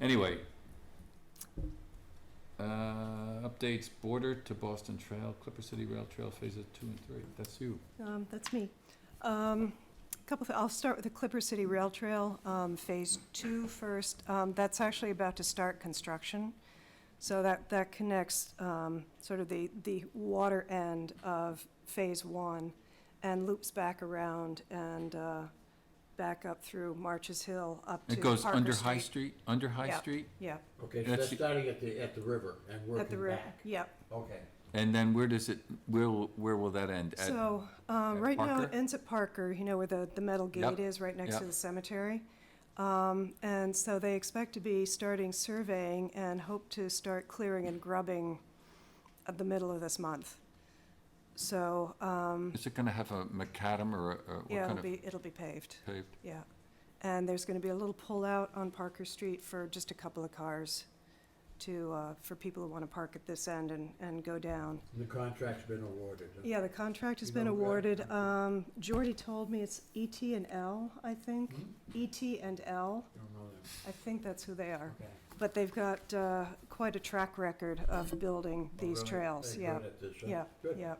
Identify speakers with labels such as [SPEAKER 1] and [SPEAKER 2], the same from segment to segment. [SPEAKER 1] Anyway. Uh, updates, border to Boston Trail, Clipper City Rail Trail Phases Two and Three, that's you.
[SPEAKER 2] Um, That's me. Um, Couple, of- I'll start with the Clipper City Rail Trail, um, Phase Two first. Um, That's actually about to start construction. So that, that connects um, sort of the, the water end of Phase One and loops back around and uh, back up through Marches Hill up to
[SPEAKER 1] It
[SPEAKER 2] Parker
[SPEAKER 1] goes
[SPEAKER 2] Street.
[SPEAKER 1] under High Street, under High
[SPEAKER 2] Yeah.
[SPEAKER 1] Street,
[SPEAKER 2] Yeah,
[SPEAKER 3] Okay, so
[SPEAKER 1] That's
[SPEAKER 3] that's
[SPEAKER 1] the-
[SPEAKER 3] starting at the, at the river and
[SPEAKER 2] at the
[SPEAKER 3] working
[SPEAKER 2] river.
[SPEAKER 3] back.
[SPEAKER 2] Yep.
[SPEAKER 3] Okay.
[SPEAKER 1] and then where does it, where, will- where will that end? At-
[SPEAKER 2] So, uh,
[SPEAKER 1] at
[SPEAKER 2] right now, it
[SPEAKER 1] Parker?
[SPEAKER 2] ends at Parker, you know, where the, the metal
[SPEAKER 1] Yep,
[SPEAKER 2] gate is, right next to
[SPEAKER 1] yep.
[SPEAKER 2] the cemetery. Um, And so they expect to be starting surveying and hope to start clearing and grubbing at the middle of this month. So, um,
[SPEAKER 1] Is it gonna have a macadam or, a- or what
[SPEAKER 2] yeah, it'll
[SPEAKER 1] kind of
[SPEAKER 2] be, it'll be paved,
[SPEAKER 1] paved?
[SPEAKER 2] yeah. And there's gonna be a little pullout on Parker Street for just a couple of cars to, uh, for people who wanna park at this end and, and go down.
[SPEAKER 3] The contract's been awarded. huh?
[SPEAKER 2] Yeah, the contract has
[SPEAKER 3] You
[SPEAKER 2] been
[SPEAKER 3] know, uh,
[SPEAKER 2] awarded. Um, Jordy told me it's ET and L, I think.
[SPEAKER 3] Hmm?
[SPEAKER 2] ET and L,
[SPEAKER 3] Don't know that.
[SPEAKER 2] I think that's who they are.
[SPEAKER 3] Okay.
[SPEAKER 2] But they've got, uh, quite a track record of building
[SPEAKER 3] Oh,
[SPEAKER 2] these
[SPEAKER 3] really?
[SPEAKER 2] trails,
[SPEAKER 3] They're
[SPEAKER 2] yeah,
[SPEAKER 3] good at this, huh?
[SPEAKER 2] yeah,
[SPEAKER 3] Good.
[SPEAKER 2] yeah.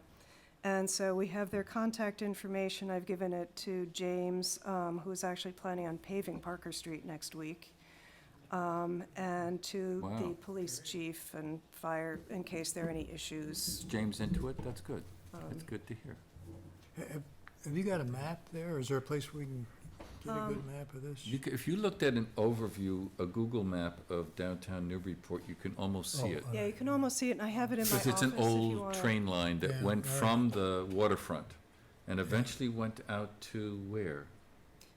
[SPEAKER 2] And so we have their contact information. I've given it to James, um, who's actually planning on paving Parker Street next week. Um, and to the
[SPEAKER 1] Wow.
[SPEAKER 2] police chief and fire, in case there are any issues.
[SPEAKER 1] Is James into it? That's good.
[SPEAKER 2] Um,
[SPEAKER 1] That's good to hear.
[SPEAKER 4] Have have you got a map there, or is there a place where we can get a good
[SPEAKER 2] Um,
[SPEAKER 4] map of this?
[SPEAKER 1] You, ca- if you looked at an overview, a Google map of downtown Newburyport, you can almost see
[SPEAKER 4] Oh,
[SPEAKER 1] it.
[SPEAKER 4] uh,
[SPEAKER 2] Yeah, you can almost see it, and I have it in my
[SPEAKER 1] Because
[SPEAKER 2] office if
[SPEAKER 1] it's an
[SPEAKER 2] you
[SPEAKER 1] old
[SPEAKER 2] want it.
[SPEAKER 1] train line that
[SPEAKER 4] Yeah,
[SPEAKER 1] went
[SPEAKER 4] all right.
[SPEAKER 1] from the waterfront and eventually went out to where?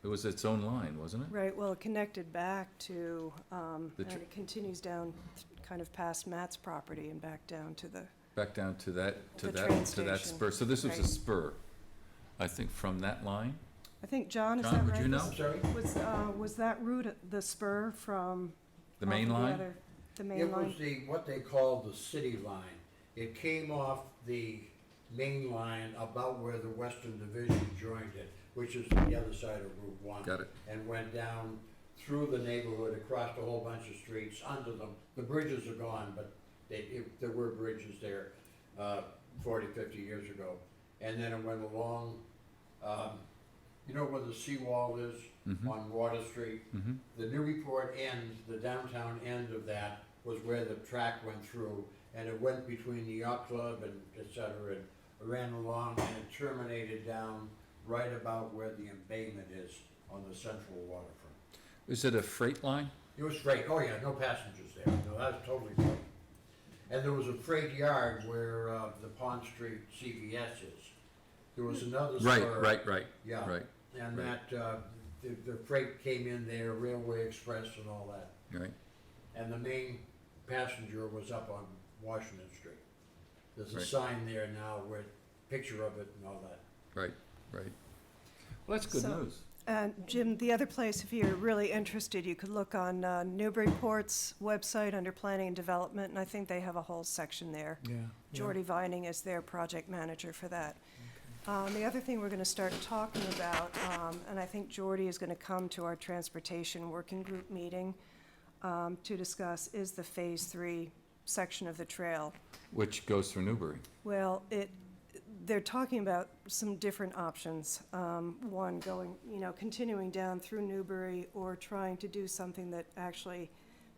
[SPEAKER 1] It was its own line, wasn't it?
[SPEAKER 2] Right, well, it connected back to, um,
[SPEAKER 1] The
[SPEAKER 2] and
[SPEAKER 1] tr-
[SPEAKER 2] it continues down, th- kind of past Matt's property and back down to the,
[SPEAKER 1] Back down to that, to
[SPEAKER 2] The
[SPEAKER 1] that,
[SPEAKER 2] train
[SPEAKER 1] to that
[SPEAKER 2] station,
[SPEAKER 1] spur. So this was a
[SPEAKER 2] right.
[SPEAKER 1] spur, I think, from that line.
[SPEAKER 2] I think, John, is that
[SPEAKER 1] John,
[SPEAKER 2] right?
[SPEAKER 1] would you
[SPEAKER 2] Was-
[SPEAKER 1] know?
[SPEAKER 3] I'm sorry?
[SPEAKER 2] Was, uh, was that route, at the spur from?
[SPEAKER 1] The
[SPEAKER 2] off
[SPEAKER 1] main
[SPEAKER 2] of
[SPEAKER 1] line?
[SPEAKER 2] other- The
[SPEAKER 3] It
[SPEAKER 2] main
[SPEAKER 3] was
[SPEAKER 2] line?
[SPEAKER 3] the, what they called the city line. It came off the main line about where the Western Division joined it, which is the other side of Route One.
[SPEAKER 1] Got it.
[SPEAKER 3] And went down through the neighborhood, across a whole bunch of streets, under them. The bridges are gone, but they, if, there were bridges there, uh, forty, fifty years ago. And then it went along, um, you know where the seawall is
[SPEAKER 1] Mm-hmm.
[SPEAKER 3] on Water Street?
[SPEAKER 1] Mhm.
[SPEAKER 3] The Newburyport end, the downtown end of that was where the track went through and it went between the yacht club and et cetera and ran along and it terminated down right about where the embayment is on the central waterfront.
[SPEAKER 1] Is it a freight line?
[SPEAKER 3] It was freight, oh yeah, no passengers there, no, that was totally freight. And there was a freight yard where, uh, the Pond Street CVS is. There was another store.
[SPEAKER 1] Right, right, right,
[SPEAKER 3] Yeah.
[SPEAKER 1] right,
[SPEAKER 3] And
[SPEAKER 1] Right.
[SPEAKER 3] that, uh, the, the freight came in there, Railway Express and all that.
[SPEAKER 1] right.
[SPEAKER 3] And the main passenger was up on Washington Street. There's a
[SPEAKER 1] Right.
[SPEAKER 3] sign there now with picture of it and all that.
[SPEAKER 1] Right, right. Well, that's good
[SPEAKER 2] So-
[SPEAKER 1] news.
[SPEAKER 2] And Jim, the other place, if you're really interested, you could look on uh, Newburyport's website under Planning and Development, and I think they have a whole section there.
[SPEAKER 4] Yeah. yeah.
[SPEAKER 2] Jordy Vining is their project manager for that. Um, The other thing we're going to start talking about, um, and I think Jordy is going to come to our transportation working group meeting um, to discuss, is the Phase Three section of the trail.
[SPEAKER 1] Which goes through Newbury.
[SPEAKER 2] Well, it, they're talking about some different options. Um, One, going, you know, continuing down through Newbury or trying to do something that actually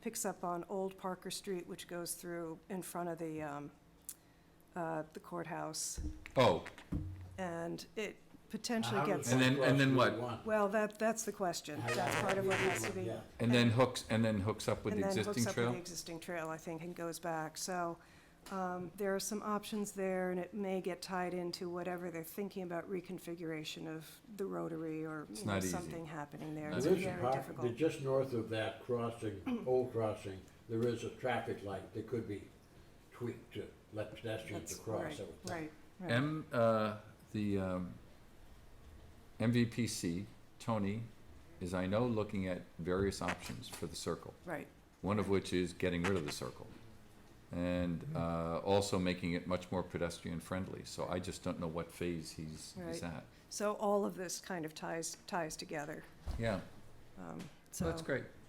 [SPEAKER 2] picks up on Old Parker Street, which goes through in front of the, um, uh, the courthouse.
[SPEAKER 1] Oh,
[SPEAKER 2] And it
[SPEAKER 3] Now,
[SPEAKER 2] potentially
[SPEAKER 3] how does
[SPEAKER 2] gets,
[SPEAKER 1] And
[SPEAKER 3] that
[SPEAKER 1] then-
[SPEAKER 3] cross
[SPEAKER 1] and then
[SPEAKER 3] Route
[SPEAKER 1] what?
[SPEAKER 3] one?
[SPEAKER 2] well, that, that's the question. That's part of what has to be.
[SPEAKER 3] Yeah.
[SPEAKER 1] and then hooks, and then hooks up with
[SPEAKER 2] And
[SPEAKER 1] the
[SPEAKER 2] then
[SPEAKER 1] existing
[SPEAKER 2] hooks up with the
[SPEAKER 1] trail?
[SPEAKER 2] existing trail, I think, and goes back. So um, there are some options there, and it may get tied into whatever they're thinking about reconfiguration of the rotary or,
[SPEAKER 1] It's
[SPEAKER 2] you know,
[SPEAKER 1] not easy.
[SPEAKER 2] something happening there.
[SPEAKER 1] Not
[SPEAKER 2] It's
[SPEAKER 3] There is a
[SPEAKER 2] very
[SPEAKER 3] park,
[SPEAKER 2] difficult.
[SPEAKER 3] just north of that crossing, old crossing, there is a traffic light that could be tweaked to let pedestrians
[SPEAKER 2] That's-
[SPEAKER 3] across.
[SPEAKER 2] right,
[SPEAKER 3] I would think.
[SPEAKER 2] Right, right.
[SPEAKER 1] M, uh, the, um, MVPC, Tony, is I know looking at various options for the circle,
[SPEAKER 2] Right,
[SPEAKER 1] one of which is getting rid of the circle. And, uh, also making it much more pedestrian friendly, so I just don't know what phase he's, he's
[SPEAKER 2] Right.
[SPEAKER 1] at.
[SPEAKER 2] so all of this kind of ties, ties together,
[SPEAKER 1] Yeah,
[SPEAKER 2] um,
[SPEAKER 1] so
[SPEAKER 2] so.
[SPEAKER 1] that's great.